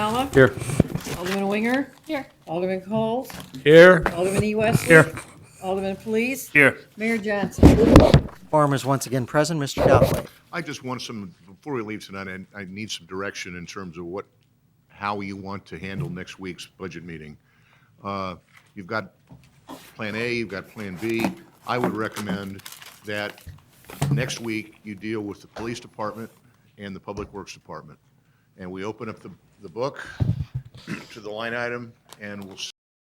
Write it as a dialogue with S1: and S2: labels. S1: Hogg.
S2: Here.
S1: Alderman Winger. Here. Alderman Coles.
S2: Here.
S1: Alderman E. Wesley.
S2: Here.
S1: Alderman Police.
S2: Here.
S1: Mayor Johnson.
S3: Quorum is once again present. Mr. Dowling.
S4: I just want some, before we leave tonight, I, I need some direction in terms of what, how you want to handle next week's budget meeting. Uh, You've got Plan A, you've got Plan B. I would recommend that next week you deal with the Police Department and the Public Works Department. And we open up the, the book to the line item, and we'll